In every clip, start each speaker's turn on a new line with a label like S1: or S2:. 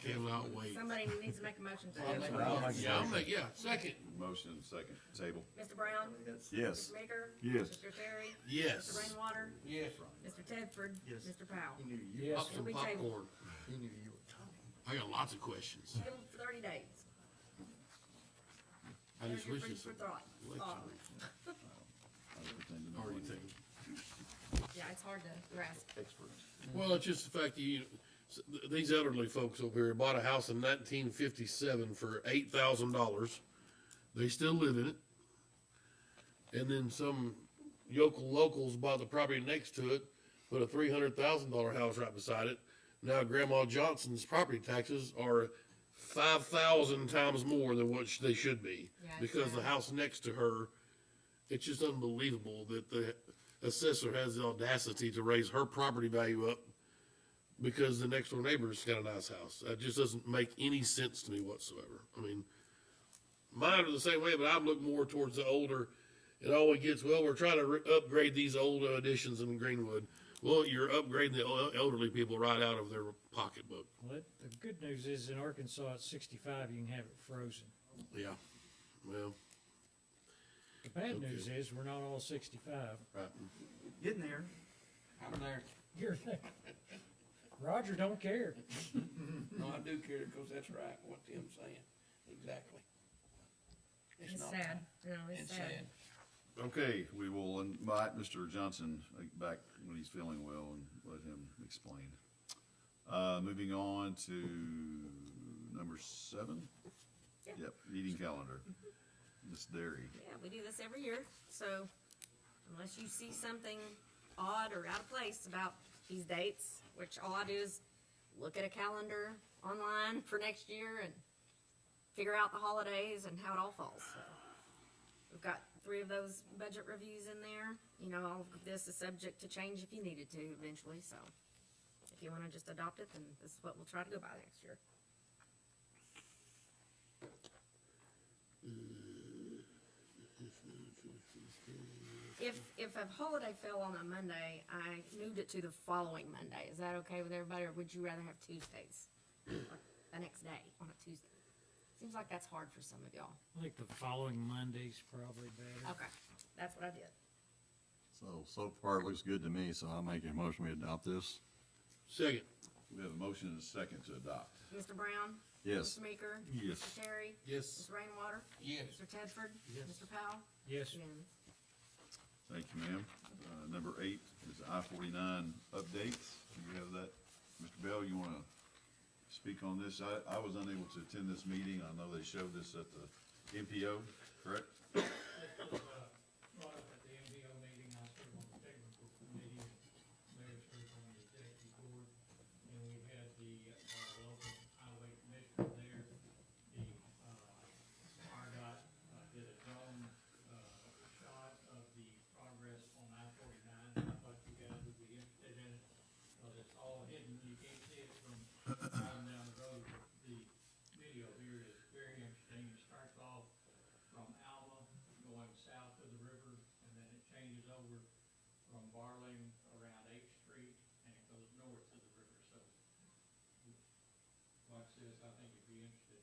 S1: cannot wait.
S2: Somebody needs to make a motion to
S3: I'll
S2: table.
S3: make a
S1: Yeah, I'm like, yeah, second,
S4: Motion second, table.
S2: Mr. Brown?
S4: Yes.
S2: Mr. Maker?
S5: Yes.
S2: Mr. Terry? Mr.
S1: yes.
S2: Rainwater?
S3: Yes.
S2: Mr. Tedford?
S5: Yes.
S2: Mr. Powell?
S5: knew you,
S3: Yes.
S1: Pop some
S2: It'll be tabled.
S1: popcorn.
S5: he knew you were coming.
S1: I got lots of questions.
S2: Give them thirty days.
S1: I
S2: There's
S1: just
S2: your
S1: wish
S2: food
S1: it's
S2: for thought. Thought.
S1: already taken.
S2: Yeah, it's hard to grasp.
S4: Experts.
S1: Well, it's just the fact that you, s- th- these elderly folks over here bought a house in nineteen fifty-seven for eight thousand dollars. They still live in it. And then some yokel locals bought the property next to it, put a three hundred thousand dollar house right beside it. Now Grandma Johnson's property taxes are five thousand times more than what sh- they should be.
S2: Yeah, it's
S1: Because the
S2: bad.
S1: house next to her, it's just unbelievable that the assessor has the audacity to raise her property value up because the next door neighbor's got a nice house. That just doesn't make any sense to me whatsoever. I mean, mine are the same way, but I look more towards the older. It always gets, well, we're trying to re- upgrade these old additions in Greenwood. Well, you're upgrading the el- elderly people right out of their pocketbook.
S6: Well, it- the good news is in Arkansas at sixty-five, you can have it frozen.
S1: Yeah. Well,
S6: The bad news is we're not all sixty-five.
S1: right.
S3: Getting there. I'm there.
S6: You're, Roger don't care.
S3: No, I do care, cause that's right, what Tim's saying, exactly.
S2: It's
S3: not-
S2: sad. No, it's
S3: It's
S2: sad.
S3: sad.
S4: Okay, we will invite Mr. Johnson uh, back when he's feeling well and let him explain. Uh, moving on to number seven.
S2: Yeah.
S4: Yep, meeting calendar. Ms. Derry.
S2: Yeah, we do this every year, so unless you see something odd or out of place about these dates, which all I do is look at a calendar online for next year and figure out the holidays and how it all falls, so. We've got three of those budget reviews in there, you know, all of this is subject to change if you needed to eventually, so. If you wanna just adopt it, then this is what we'll try to go by next year. If, if a holiday fell on a Monday, I moved it to the following Monday. Is that okay with everybody, or would you rather have Tuesdays? Like, The next day, on a Tuesday? Seems like that's hard for some of y'all.
S6: I think the following Monday's probably better.
S2: Okay, that's what I did.
S7: So, so far it looks good to me, so I'll make a motion we adopt this.
S1: Second,
S4: We have a motion and a second to adopt.
S2: Mr. Brown?
S7: Yes.
S2: Mr. Meeker?
S4: Yes.
S2: Mr. Terry?
S1: yes.
S2: Mr. Rainwater?
S3: Yes.
S2: Mr. Tedford?
S1: Yes.
S2: Mr. Powell?
S6: Yes,
S2: Yes.
S4: Thank you, ma'am. Uh, number eight is I forty-nine updates. You have that. Mr. Bell, you wanna speak on this? I, I was unable to attend this meeting. I know they showed this at the MPO, correct?
S6: brought uh, up at the MBO meeting, I serve on the technical committee, and Mayor serves on the executive board, and we had the, uh, local highway commissioner there, the, uh, RDOT uh, did a drone, uh, shot of the progress on I forty-nine, I thought you guys would be interested in it, because it's all hidden, you can't see it from driving down the road, but the video here is very interesting, it starts off from Alma going south to the river, and then it changes over from Barling around Eighth Street, and it goes north to the river, so. Watch this, I think you'd be interested.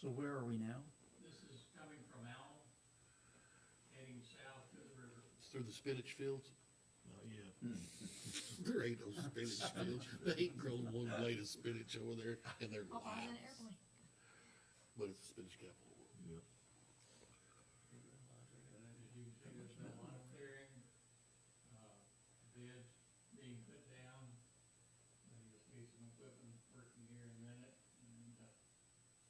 S3: So where are we now?
S6: This is coming from Alma, heading south to the river.
S1: It's through the spinach fields. Yeah. There ain't no spinach fields. They ain't grown one blade of spinach over there in their
S2: Oh, I'm in an
S1: lives.
S2: airplane.
S1: But it's the spinach capital of the world.
S6: And then as you can see, there's been a lot of clearing, uh, beds being put down. And you'll see some equipment working here in a minute, and, uh,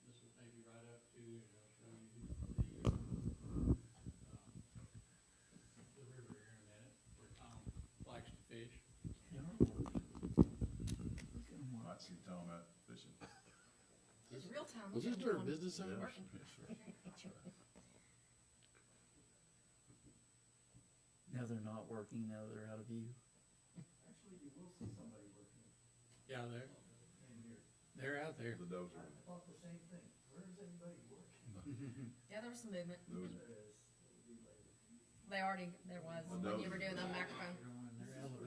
S6: this will take you right up to, and I'll show you the, um, the river here in a minute, where Tom likes to fish.
S4: Might see Tom out fishing.
S2: It's real time.
S1: Was this during business hours?
S8: No, they're not working. No, they're out of view.
S3: Yeah, they're, they're out there.
S4: The dozer.
S2: Yeah, there was some movement.
S4: Those-
S2: They already, there was, when you were doing the microphone.